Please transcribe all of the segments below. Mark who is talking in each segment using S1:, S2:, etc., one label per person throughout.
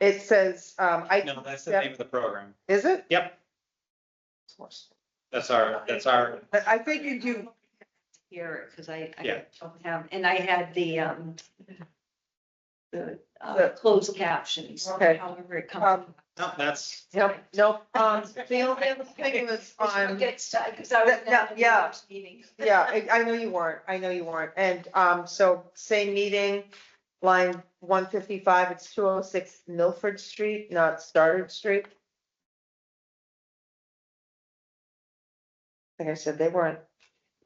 S1: It says, um,
S2: No,
S1: I,
S2: that's the
S1: Yeah.
S2: name of the program.
S1: is it?
S2: Yep. That's our, that's our,
S1: But I figured you,
S3: Here, because I,
S2: Yeah.
S3: I don't have, and I had the, um, the, uh,
S1: The-
S3: closed captions.
S1: Okay.
S3: However it comes.
S1: um,
S2: no, that's,
S1: yep, nope, um, the only other thing was on,
S3: Gets, because I was.
S1: That- that-
S3: at the
S1: yeah.
S3: last Meeting.
S1: yeah, I, I know you weren't, I know you weren't. And, um, so same meeting, line one fifty-five, it's two oh six Milford Street, not Stoddard Street. Like I said, they weren't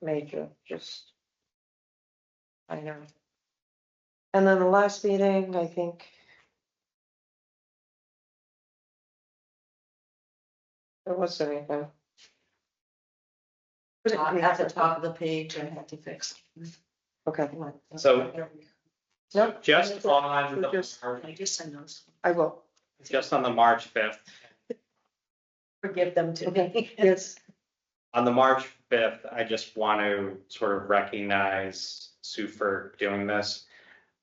S1: major, just. I know. And then the last meeting, I think. There wasn't anything.
S3: Top- At the top of the page, I had to fix.
S1: Okay,
S2: So-
S1: no,
S2: just on, the
S1: Just-
S2: Mar-
S3: I just send those.
S1: I will,
S2: just on the March fifth,
S3: Forgive them to me.
S1: yes,
S2: on the March fifth, I just want to sort of recognize Sue for doing this.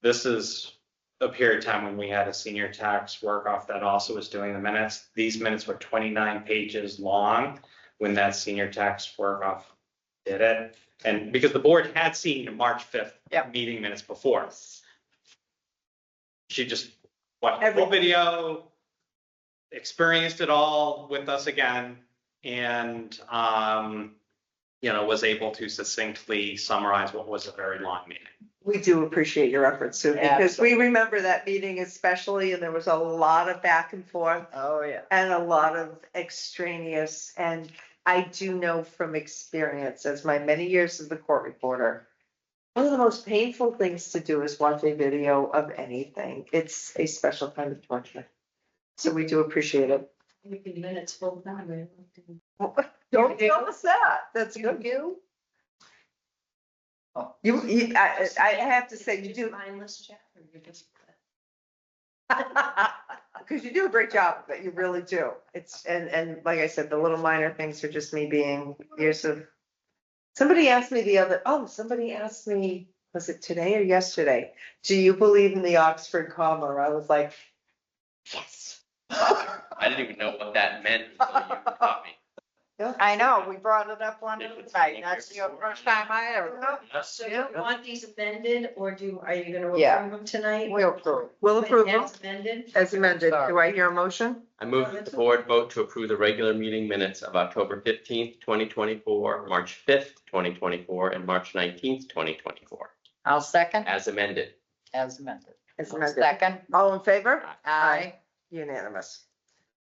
S2: This is a period of time when we had a senior tax work off that also was doing the minutes. These minutes were twenty-nine pages long when that senior tax work off did it. And because the board had seen the March fifth
S1: Yep.
S2: meeting minutes before. She just watched the
S1: Everything.
S2: full video, experienced it all with us again, and, um, you know, was able to succinctly summarize what was a very long meeting.
S1: we do appreciate your efforts, Sue,
S3: Yeah.
S1: because we remember that meeting especially, and there was a lot of back and forth.
S4: Oh, yeah.
S1: and a lot of extraneous, and I do know from experience, as my many years as the court reporter. One of the most painful things to do is watch a video of anything. It's a special kind of torture. So we do appreciate it.
S3: We can minutes full time.
S1: Don't tell us that. That's good. You, you, I, I I have to say, you do,
S3: Mindless chat. or you're just-
S1: Because you do a great job, but you really do. It's, and, and like I said, the little minor things are just me being years of. Somebody asked me the other, oh, somebody asked me, was it today or yesterday? Do you believe in the Oxford comma? I was like, yes.
S5: I didn't even know what that meant until you taught me.
S4: I know, we brought it up one
S5: It
S4: other
S5: was
S4: night.
S5: like
S4: That's
S5: your
S4: the first time I ever. heard.
S3: So you want these amended or do, are you gonna
S1: Yeah.
S3: approve them tonight?
S4: We'll approve.
S1: Will approve
S3: As amended?
S1: as amended. Do I hear a motion?
S5: I move that the board vote to approve the regular meeting minutes of October fifteenth, twenty twenty-four, March fifth, twenty twenty-four, and March nineteenth, twenty twenty-four,
S4: I'll second
S5: as amended.
S4: as amended.
S1: As
S4: I'll
S1: amended.
S4: Second,
S1: All in favor?
S4: I,
S1: Unanimous.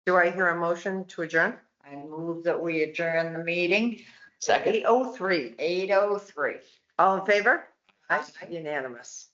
S1: Do I hear a motion to adjourn?
S4: I move that we adjourn the meeting,
S5: Second?
S1: Eight oh three.
S4: eight oh three.
S1: All in favor? Unanimous.